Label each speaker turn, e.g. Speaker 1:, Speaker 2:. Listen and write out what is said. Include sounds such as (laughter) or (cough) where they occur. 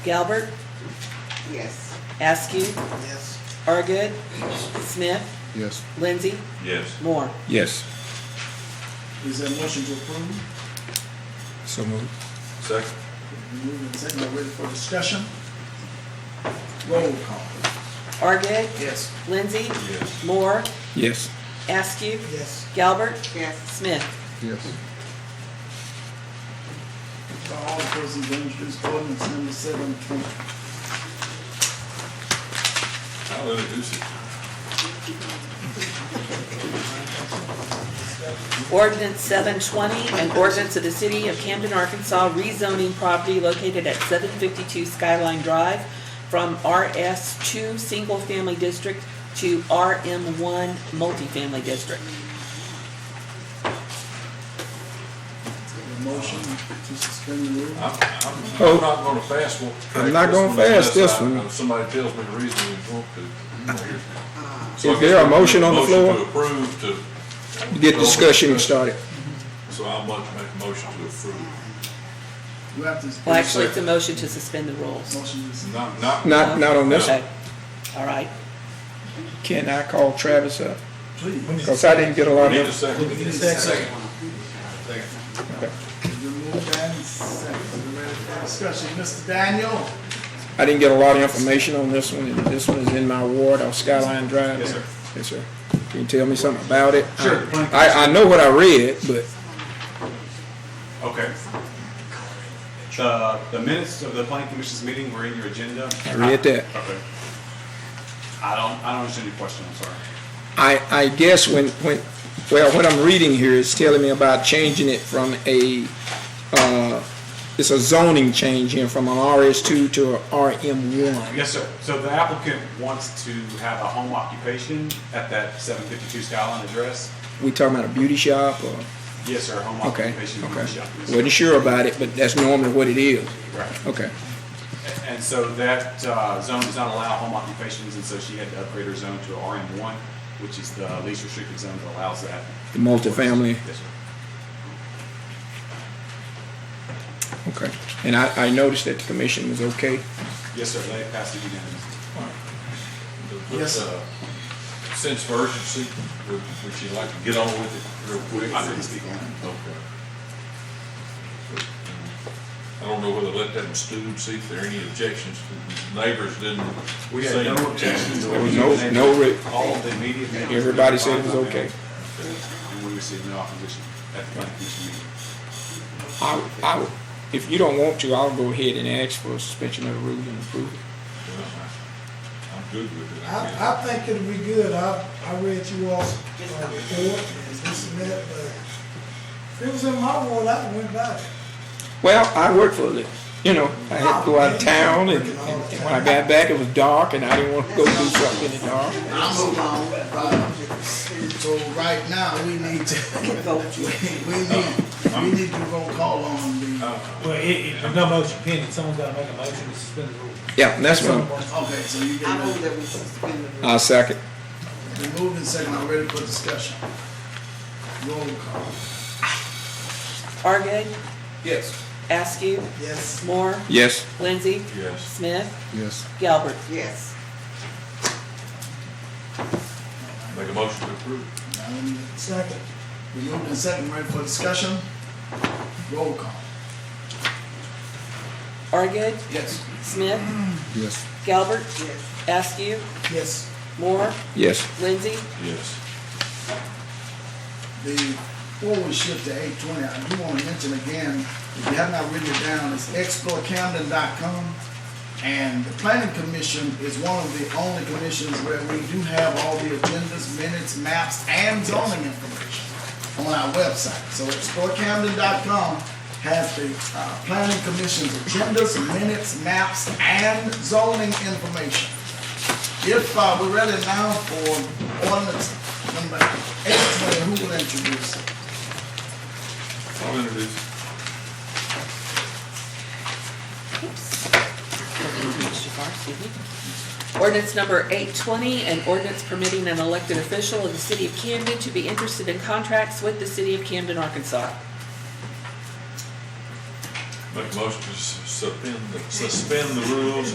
Speaker 1: Galbert,
Speaker 2: Yes.
Speaker 1: Askew,
Speaker 2: Yes.
Speaker 1: Argid, Smith,
Speaker 3: Yes.
Speaker 1: Lindsay,
Speaker 4: Yes.
Speaker 1: Moore.
Speaker 3: Yes.
Speaker 2: Is there a motion to approve?
Speaker 3: So moved.
Speaker 4: Second?
Speaker 2: Moving and second, we're ready for discussion. Roll call.
Speaker 1: Argid,
Speaker 2: Yes.
Speaker 1: Lindsay,
Speaker 4: Yes.
Speaker 1: Moore,
Speaker 3: Yes.
Speaker 1: Askew,
Speaker 2: Yes.
Speaker 1: Galbert,
Speaker 2: Yes.
Speaker 1: Smith.
Speaker 3: Yes.
Speaker 2: All persons introduced ordinance number seven twenty.
Speaker 4: I'll introduce it.
Speaker 1: Ordinance seven twenty, an ordinance of the city of Camden, Arkansas rezoning property located at seven fifty-two Skyline Drive from RS two single family district to RM one multifamily district.
Speaker 2: A motion to suspend the rule.
Speaker 4: I'm, I'm
Speaker 3: Oh.
Speaker 4: I'm not gonna fast walk.
Speaker 3: I'm not gonna fast
Speaker 4: unless
Speaker 3: this
Speaker 4: I-
Speaker 3: one.
Speaker 4: Somebody tells me the reason we want to. you know, here's- So I
Speaker 3: Is there a
Speaker 4: guess we
Speaker 3: motion
Speaker 4: make
Speaker 3: on the
Speaker 4: Motion
Speaker 3: floor?
Speaker 4: to approve to.
Speaker 3: Get discussion started.
Speaker 4: So I'll mo- make a motion to approve.
Speaker 2: We have to.
Speaker 1: Well, actually, it's a motion to suspend the rules.
Speaker 2: Motion to suspend.
Speaker 4: Not, not.
Speaker 3: Not, not on this.
Speaker 1: Okay. All right.
Speaker 3: Can I call Travis up?
Speaker 2: Please.
Speaker 3: Because I didn't get a
Speaker 4: We
Speaker 3: lot
Speaker 4: need a
Speaker 3: of,
Speaker 4: second.
Speaker 2: The move and second, we're ready for discussion. Mr. Daniel?
Speaker 3: I didn't get a lot of information on this one. and This one is in my ward on Skyline Drive. Yes, sir. Yes, sir. Can you tell me something about it? Sure. I, I know what I read, but
Speaker 5: Okay. The, the minutes of the planning commission's meeting were in your agenda?
Speaker 3: I read that.
Speaker 5: Okay. I don't, I don't understand your question, I'm sorry.
Speaker 3: I, I guess when, when, well, what I'm reading here is telling me about changing it from a, uh, it's a zoning change here from an RS2 to a RM1.
Speaker 5: Yes, sir. So the applicant wants to have a home occupation at that seven fifty-two Skyline address?
Speaker 3: We talking about a beauty shop or,
Speaker 5: Yes, sir, home
Speaker 3: okay,
Speaker 5: occupation.
Speaker 3: okay.
Speaker 5: shop. Yes, sir.
Speaker 3: Wasn't sure about it, but that's normally what it is.
Speaker 5: Right.
Speaker 3: Okay,
Speaker 5: And so that uh, zone does not allow home occupations, and so she had to upgrade her zone to RM one, which is the least restricted zone that allows that.
Speaker 3: the multifamily,
Speaker 5: Yes, sir.
Speaker 3: okay. And I, I noticed that the commission was okay.
Speaker 5: Yes, sir, they passed it unanimously.
Speaker 2: Yes, sir.
Speaker 4: uh, Sense of urgency, would, would you like to get on with it real quick?
Speaker 5: I didn't speak on it.
Speaker 4: Okay. I don't know whether to let that one stew and see if there are any objections. Neighbors didn't.
Speaker 5: We had
Speaker 4: say-
Speaker 5: no objections.
Speaker 3: There was no, no, re-
Speaker 5: All of the immediate. members-
Speaker 3: Everybody said it was okay.
Speaker 5: And we received no opposition at the planning commission meeting.
Speaker 3: I, I, if you don't want to, I'll go ahead and ask for a suspension of the rules and approve it.
Speaker 4: Well, I- I'm good with it. I mean,
Speaker 6: I, I think it'll be good, I, I read you all's uh, report and this and that, but if it was in my world, I went by it.
Speaker 3: Well, I worked for a living. You know, I had to go out of town, and, and, and when I got back, it was dark, and I didn't want to go do something in the dark.
Speaker 2: I'll move on. So right now, we need to, (laughs) we need, we need to roll call on the,
Speaker 7: Well, it, it, there's no motion pending, someone's gotta make a motion to suspend the rules.
Speaker 3: Yeah, and that's one.
Speaker 2: okay, so you get it.
Speaker 3: I'll second.
Speaker 2: Been moved and seconded, I'm ready for discussion. Roll call.
Speaker 1: Argid,
Speaker 4: Yes.
Speaker 1: Askew,
Speaker 2: Yes.
Speaker 1: Moore,
Speaker 3: Yes.
Speaker 1: Lindsay,
Speaker 4: Yes.
Speaker 1: Smith,
Speaker 3: Yes.
Speaker 1: Galbert.
Speaker 2: Yes.
Speaker 4: Make a motion to approve.
Speaker 6: Second,
Speaker 2: Been moved and seconded, ready for discussion. Roll call.
Speaker 1: Argid,
Speaker 2: Yes.
Speaker 1: Smith,
Speaker 3: Yes.
Speaker 1: Galbert. Askew,
Speaker 2: Yes.
Speaker 1: Moore,
Speaker 3: Yes.
Speaker 1: Lindsay,
Speaker 4: Yes.
Speaker 2: The, before we shift to eight twenty, I do want to mention again, if you have not written it down, it's explorecamden.com. And the planning commission is one of the only commissions where we do have all the agendas, minutes, maps, and zoning information on our website. So explorecamden.com has the uh, planning commission's agendas, minutes, maps, and zoning information. If uh, we're ready now for ordinance number eight twenty, who will introduce it?
Speaker 4: I'll introduce it.
Speaker 1: Ordinance number 820, an ordinance permitting an elected official of the city of Camden to be interested in contracts with the city of Camden, Arkansas.
Speaker 4: Make a motion to sus- suspend, the- suspend the rules